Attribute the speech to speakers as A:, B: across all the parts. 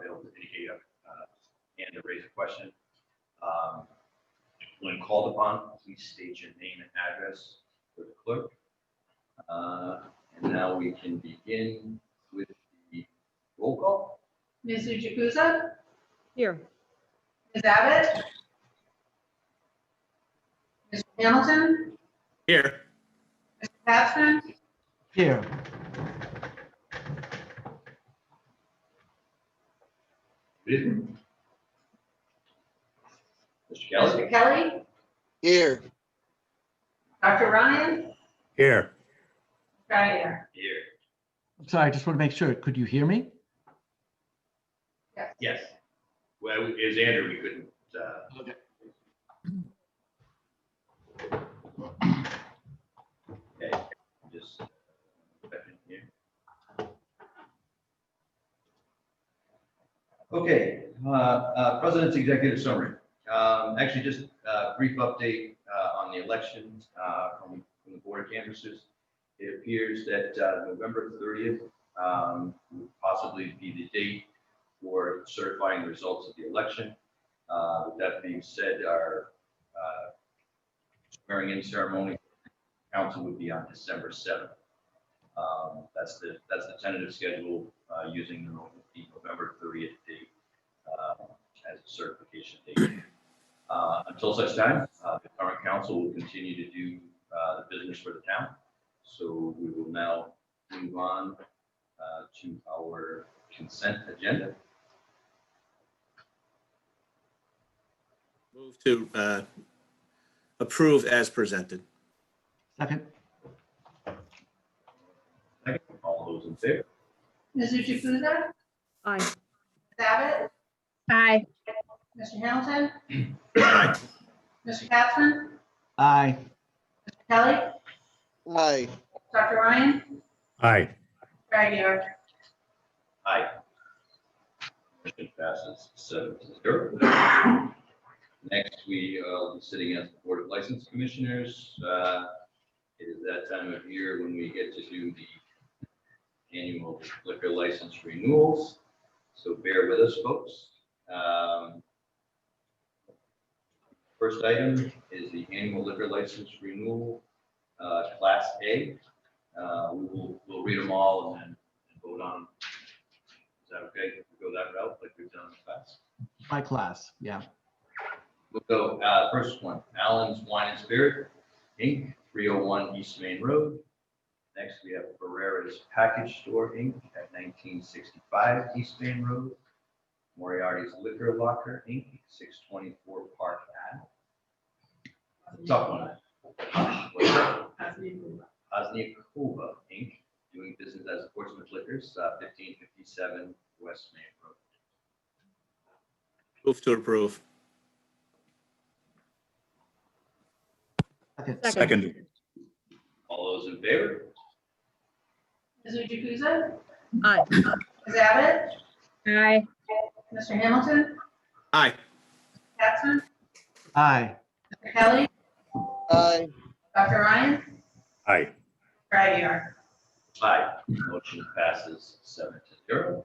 A: gave uh, and to raise a question. Um, When called upon, please state your name and address for the clerk. Uh, And now we can begin with the roll call.
B: Ms. Jukusa?
C: Here.
B: Ms. Abbott? Mr. Hamilton?
D: Here.
B: Mr. Capson?
E: Here,
A: Mr. Kelly?
B: Mr. Kelly?
F: Here,
B: Dr. Ryan?
D: Here.
B: Geyer?
A: Here.
E: I'm sorry, I just want to make sure. Could you hear me?
A: Yes. Well, it was Andrew, we couldn't, uh, okay, just. Okay, uh, uh, President's Executive Summary. Um, Actually, just a brief update uh, on the election uh, from from the Board of Canvassers. It appears that uh, November 30th um, would possibly be the date for certifying the results of the election. Uh, With that being said, our uh, swearing-in ceremony, council would be on December 7th. Um, That's the, that's the tentative schedule uh, using the Nov- the November 30th date um, as a certification date. Uh, Until such time, uh, the current council will continue to do uh, the business for the town. So we will now move on uh, to our consent agenda.
D: Move to uh, approve as presented.
E: Second,
A: Second, All those in favor?
B: Ms. Jukusa?
C: Aye.
B: Ms. Abbott?
C: Aye.
B: Mr. Hamilton?
D: Aye.
B: Mr. Capson?
E: aye.
B: Mr. Kelly?
F: aye,
B: Dr. Ryan?
D: Aye.
B: Geyer?
A: Aye. Motion passes seven to zero. Next, we uh, will be sitting as the Board of License Commissioners. Uh, It is that time of year when we get to do the annual liquor license renewals. So bear with us, folks. Um, First item is the annual liquor license renewal, uh, Class A. Uh, We will, we'll read them all and then vote on them is that okay if we go that route like we've done in the past?
E: My class, yeah.
A: We'll go, uh, first one, Allen's Wine and Spirit, Inc., three oh one East Main Road. Next, we have Barrera's Package Store, Inc., at nineteen sixty-five East Main Road. Moriarty's Liquor Locker, Inc., six twenty-four Park Ave. That's a Tough one. What's that? Osnikova, Inc., doing business as Portsmouth Liquors, uh, fifteen fifty-seven West Main Road.
D: Move to approve.
E: Second,
C: Second.
A: All those in favor?
B: Ms. Jukusa?
C: Aye.
B: Ms. Abbott?
C: Aye.
B: Mr. Hamilton?
D: Aye.
B: Capson?
E: aye.
B: Mr. Kelly?
F: aye,
B: Dr. Ryan?
D: Aye.
B: Geyer?
A: Aye. Motion passes seven to zero.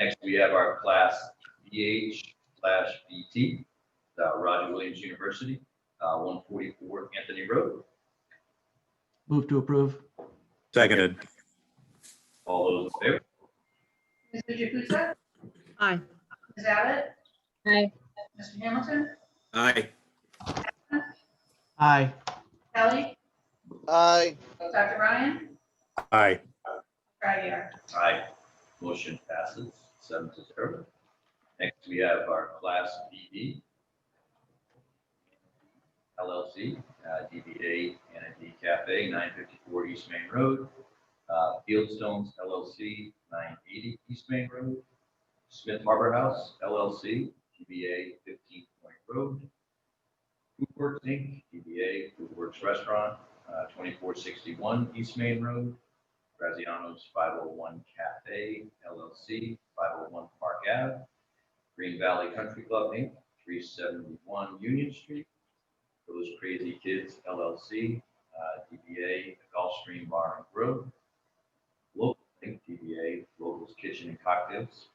A: Next, we have our class BH slash BT, uh, Roger Williams University, uh, 144 Anthony Road.
E: Move to approve.
G: Seconded.
A: All those in favor?
B: Ms. Jukusa?
C: Aye.
B: Ms. Abbott?
C: Aye.
B: Mr. Hamilton?
D: Aye.
E: Aye,
B: Kelly?
F: aye,
B: Dr. Ryan?
G: Aye.
B: Geyer?
A: Aye. Motion passes seven to zero. Next, we have our class BB LLC, uh, DBA and a D Cafe, 954 East Main Road. Uh, Fieldstones LLC, 980 East Main Road. Smith Harbor House LLC, DBA 15 Point Road. Foodworks Inc., DBA Foodworks Restaurant, uh, 2461 East Main Road. Graziano's 501 Cafe LLC, 501 Park Ave. Green Valley Country Club Inc., 371 Union Street. Those Crazy Kids LLC, uh, DBA Gulfstream Bar and Grill. Local Inc., DBA Locals Kitchen and Cocktails,